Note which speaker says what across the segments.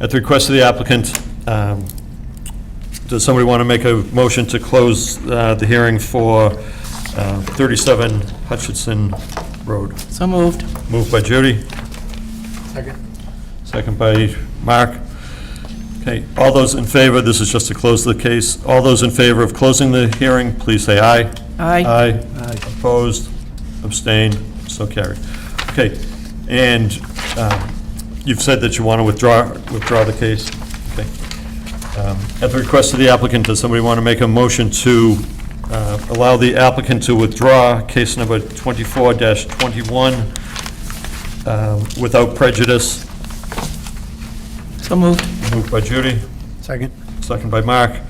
Speaker 1: At the request of the applicant, um, does somebody want to make a motion to close uh, the hearing for uh, 37 Hutchinson Road?
Speaker 2: So moved.
Speaker 1: Moved by Judy,
Speaker 3: Second.
Speaker 1: second by Mark. Okay, all those in favor, this is just to close the case. All those in favor of closing the hearing, please say aye.
Speaker 2: Aye.
Speaker 1: Aye. Opposed, abstained, so carried. Okay, and um, you've said that you want to withdraw, withdraw the case. Okay. Um, At the request of the applicant, does somebody want to make a motion to uh, allow the applicant to withdraw case number 24-21 um, without prejudice?
Speaker 2: So moved.
Speaker 1: Moved by Judy,
Speaker 3: Second.
Speaker 1: second by Mark.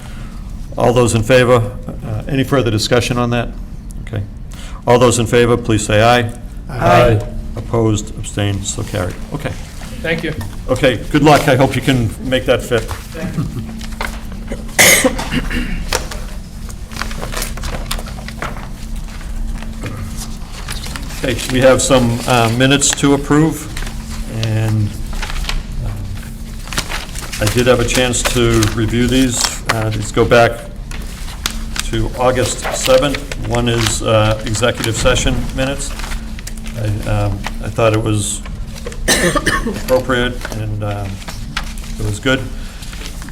Speaker 1: All those in favor? Uh, Any further discussion on that? Okay. All those in favor, please say aye.
Speaker 2: Aye.
Speaker 1: Opposed, abstained, so carried. Okay.
Speaker 4: Thank you.
Speaker 1: Okay, good luck. I hope you can make that fit. Okay, we have some uh, minutes to approve, and uh, um, I did have a chance to review these. Uh, These go back to August 7th. One is uh, executive session minutes. I um, I thought it was appropriate, and um, it was good.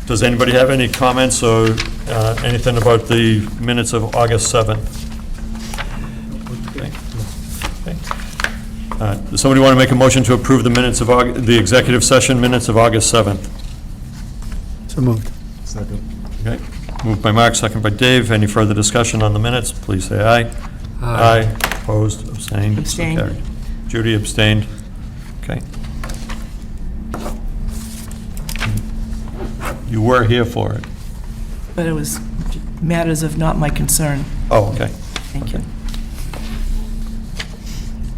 Speaker 1: Does anybody have any comments or uh, anything about the minutes of August 7th? Okay. Okay. Uh, Does somebody want to make a motion to approve the minutes of, Aug- the executive session minutes of August 7th?
Speaker 3: So moved.
Speaker 1: Okay, moved by Mark, second by Dave. Any further discussion on the minutes? Please say aye. Aye. Opposed, abstained? so
Speaker 2: Abstained.
Speaker 1: carried. Judy abstained. Okay. You were here for it.
Speaker 2: But it was matters of not my concern.
Speaker 1: Oh, okay.
Speaker 2: Thank you.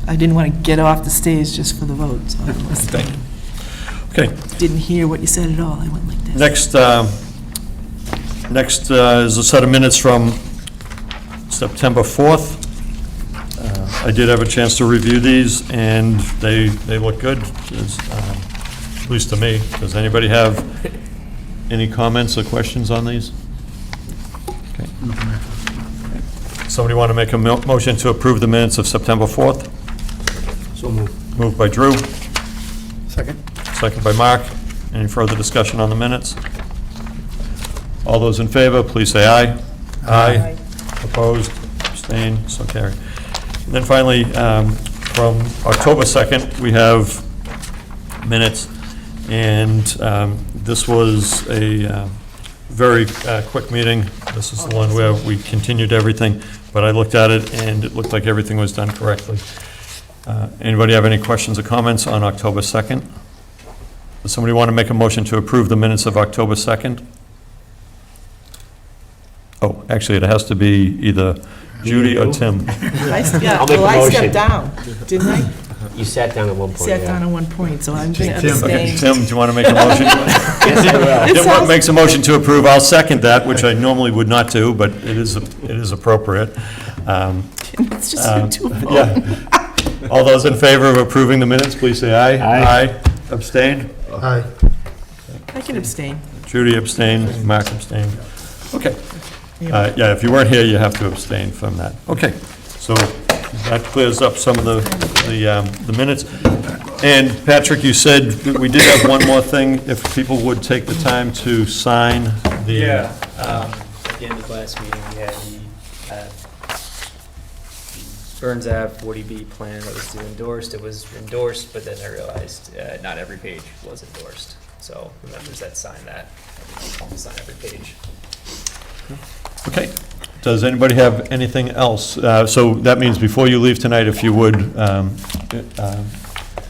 Speaker 2: I didn't want to get off the stage just for the vote, so I
Speaker 1: Thank
Speaker 2: listened.
Speaker 1: Okay,
Speaker 2: Didn't hear what you said at all. I went like this.
Speaker 1: next, um, next uh, is a set of minutes from September 4th. Uh, I did have a chance to review these, and they, they look good, as, um, at least to me. Does anybody have any comments or questions on these? Okay. Somebody want to make a mo- motion to approve the minutes of September 4th?
Speaker 3: So moved.
Speaker 1: Moved by Drew,
Speaker 3: Second.
Speaker 1: second by Mark. Any further discussion on the minutes? All those in favor, please say aye. Aye. Opposed, abstained, so carried. And then finally, um, from October 2nd, we have minutes, and um, this was a uh, very uh, quick meeting. This is the one where we continued everything, but I looked at it, and it looked like everything was done correctly. Uh, Anybody have any questions or comments on October 2nd? Does somebody want to make a motion to approve the minutes of October 2nd? Oh, actually, it has to be either Judy or Tim.
Speaker 2: I- yeah,
Speaker 5: I'll make
Speaker 2: well,
Speaker 5: a
Speaker 2: I
Speaker 5: motion.
Speaker 2: stepped down, didn't I?
Speaker 5: You sat down at one point,
Speaker 2: Sat down
Speaker 5: yeah.
Speaker 2: at one point, so I'm going to
Speaker 3: Tim.
Speaker 1: Okay,
Speaker 2: abstain.
Speaker 1: Tim, do you want to make a motion? Tim Wa- makes a motion to approve, I'll second that, which I normally would not do, but it is, it is appropriate. Um,
Speaker 2: It's just
Speaker 1: uh,
Speaker 2: you two.
Speaker 1: Yeah. All those in favor of approving the minutes, please say aye.
Speaker 5: Aye.
Speaker 1: Abstain?
Speaker 3: Aye.
Speaker 2: I can abstain.
Speaker 1: Judy abstained, Mark abstained. Okay.
Speaker 2: Yeah.
Speaker 1: Uh, Yeah, if you weren't here, you have to abstain from that. Okay, so that clears up some of the, the um, the minutes. And Patrick, you said that we did have one more thing, if people would take the time to sign the...
Speaker 4: Yeah, um, at the end of last meeting, we had the, uh, Burns Ave 40B plan that was due endorsed, it was endorsed, but then I realized, uh, not every page was endorsed. So the members that signed that, sign every page.
Speaker 1: Okay. Does anybody have anything else? Uh, So that means before you leave tonight, if you would, um, um,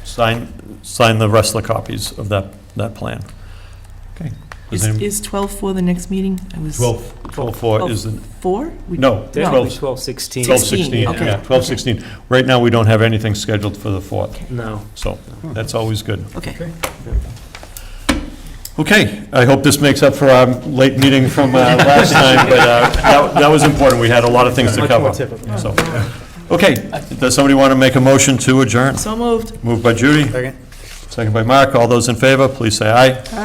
Speaker 1: sign, sign the rest of the copies of that, that plan. Okay. Does
Speaker 2: Is
Speaker 1: any-
Speaker 2: is 12 for the next meeting? I was
Speaker 1: 12, 12-4 is the,
Speaker 2: Four? We-
Speaker 1: no,
Speaker 2: Yeah.
Speaker 1: 12,
Speaker 4: Twelve sixteen.
Speaker 1: 12-16,
Speaker 2: okay.
Speaker 1: yeah, 12-16. Right now, we don't have anything scheduled for the 4th,
Speaker 4: No.
Speaker 1: so that's always good.
Speaker 2: Okay.
Speaker 1: Okay, I hope this makes up for our late meeting from uh, last time, but uh, that- that was important, we had a lot of things to
Speaker 4: Much more
Speaker 1: cover. So, Okay, does somebody want to make a motion to adjourn?
Speaker 2: So moved.
Speaker 1: Moved by Judy,
Speaker 3: Second.
Speaker 1: second by Mark, all those in favor, please say aye.